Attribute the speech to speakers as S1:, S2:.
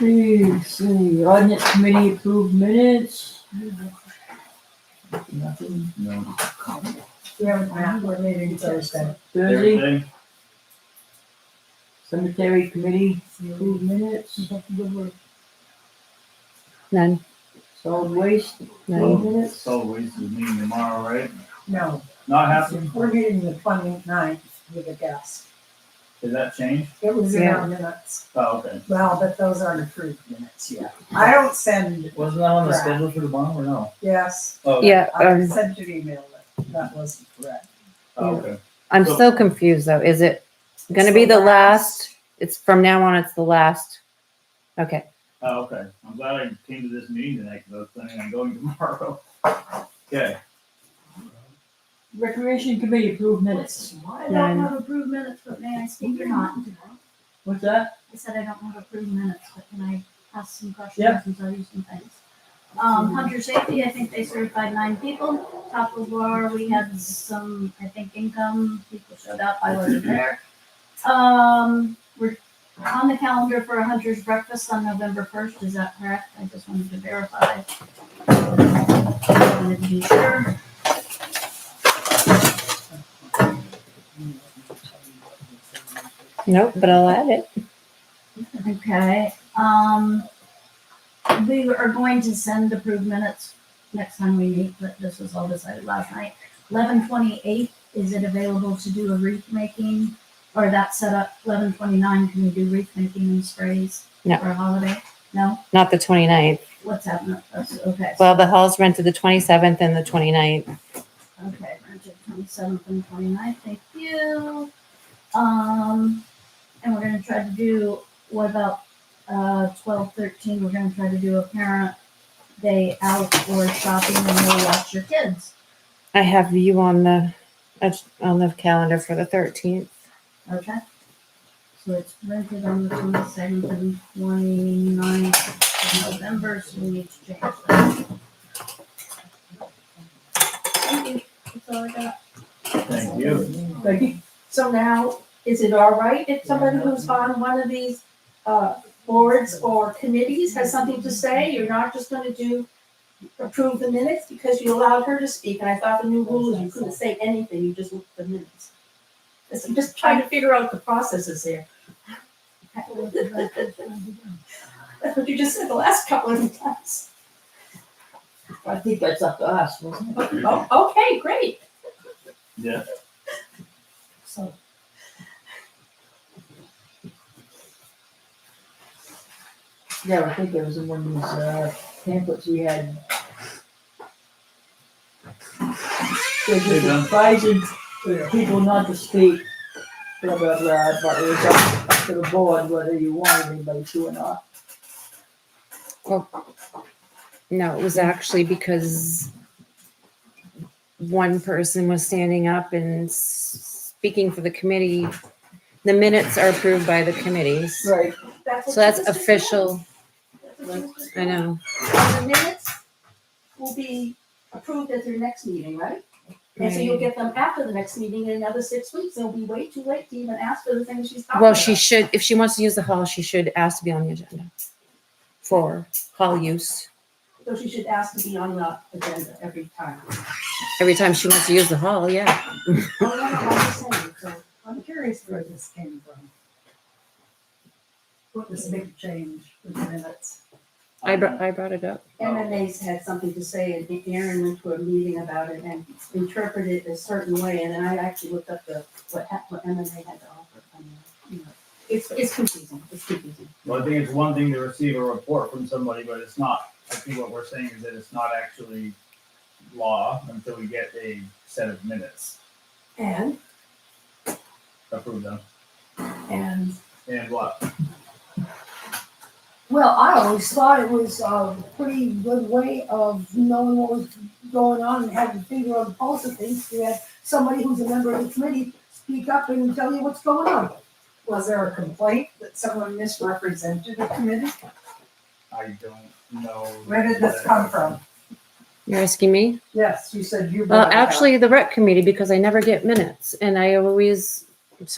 S1: Let's see, ordinance committee approved minutes. Nothing,
S2: No.
S3: We have a plan, we're meeting Thursday.
S1: Thursday,
S2: Everything?
S1: cemetery committee approved minutes,
S4: None,
S1: solid waste
S4: none.
S1: minutes.
S2: So we should meet tomorrow, right?
S3: No,
S2: Not happening?
S3: we're meeting the 29th with a guest.
S2: Did that change?
S3: It was in
S4: Yeah.
S3: our minutes.
S2: Oh, okay.
S3: Well, but those aren't approved minutes yet. I don't send,
S2: Wasn't that on the
S3: Right.
S2: schedule for tomorrow or no?
S3: yes,
S2: Oh, okay.
S4: Yeah,
S3: I
S4: um,
S3: sent an email that that wasn't correct.
S2: Oh, okay.
S4: I'm still confused though. Is it gonna be the last? It's from now on, it's the last. Okay,
S2: Oh, okay. I'm glad I came to this meeting tonight because I was planning on going tomorrow. Okay.
S1: Recreation committee approved minutes.
S5: I don't have approved minutes, but may I speak or not?
S1: What's that?
S5: I said I don't have approved minutes, but can I ask some questions
S1: Yeah.
S5: and tell you some things? Um, Hunter Safety, I think they certified nine people. Top of War, we had some, I think, income, people showed up, I wasn't there. Um, we're on the calendar for a Hunter's Breakfast on November first, is that correct? I just wanted to verify. I wanted to be sure.
S4: nope, but I'll add it.
S5: Okay, um, we are going to send approved minutes next time we meet, but this was all decided last night. Eleven twenty-eight, is it available to do a wreath making? Or that set up, eleven twenty-nine, can we do wreath making and sprays?
S4: No.
S5: For a holiday? No?
S4: Not the 29th.
S5: What's happening? That's- Okay,
S4: Well, the hall's rented the 27th and the 29th.
S5: okay, Bridget, twenty-seventh and twenty-ninth, thank you. Um, and we're gonna try to do, what about, uh, twelve, thirteen, we're gonna try to do a parent day out or shopping and we'll watch your kids.
S4: I have you on the, that's on the calendar for the 13th.
S5: Okay. So it's rented on the twenty-seventh and twenty-ninth of November, so we need to change that. Thank you. That's all I got.
S2: Thank you.
S1: Becky?
S6: So now, is it all right if somebody who's on one of these uh, boards or committees has something to say? You're not just gonna do, approve the minutes because you allowed her to speak, and I thought the new rule is you couldn't say anything, you just looked at the minutes. Just- I'm just trying to figure out the processes here. That's what you just said the last couple of times.
S1: I think that's up to us, wasn't it?
S6: Oh, okay, great.
S2: Yeah.
S6: So,
S1: Yeah, I think it was in one of these uh, pamphlets we had. They just advising people not to speak, blah, blah, blah, but it was up up to the board whether you wanted anybody to or not.
S4: No, it was actually because one person was standing up and s- speaking for the committee. The minutes are approved by the committees.
S1: Right.
S6: that's what
S4: So that's
S6: you just said.
S4: official.
S6: That's what you just
S4: I
S6: said.
S4: know.
S6: And the minutes will be approved at their next meeting, right? And so you'll get them after the next meeting in another six weeks, it'll be way too late to even ask for the things she's talking about.
S4: Well, she should, if she wants to use the hall, she should ask to be on the agenda for hall use.
S6: So she should ask to be on the agenda every time.
S4: Every time she wants to use the hall, yeah.
S6: Oh, no, no, I'm just saying, so,
S3: I'm curious where this came from. What this big change with the minutes?
S4: I brought, I brought it up.
S6: MMA's had something to say, and Aaron went to a meeting about it and interpreted it a certain way, and then I actually looked up the, what, hap- what MMA had to offer. I mean, you know, It's, it's confusing, it's confusing.
S2: Well, I think it's one thing to receive a report from somebody, but it's not, I think what we're saying is that it's not actually law until we get a set of minutes
S6: And,
S2: approved them.
S3: And
S2: And what?
S7: Well, I always thought it was a pretty good way of knowing what was going on and having a finger on the pulse of things. You had somebody who's a member of the committee speak up and tell you what's going on.
S3: was there a complaint that someone misrepresented the committee?
S2: I don't know.
S3: Where did this come from?
S4: You're asking me?
S3: Yes, you said you.
S4: Well,
S3: brought it up.
S4: actually, the rec committee, because I never get minutes and I always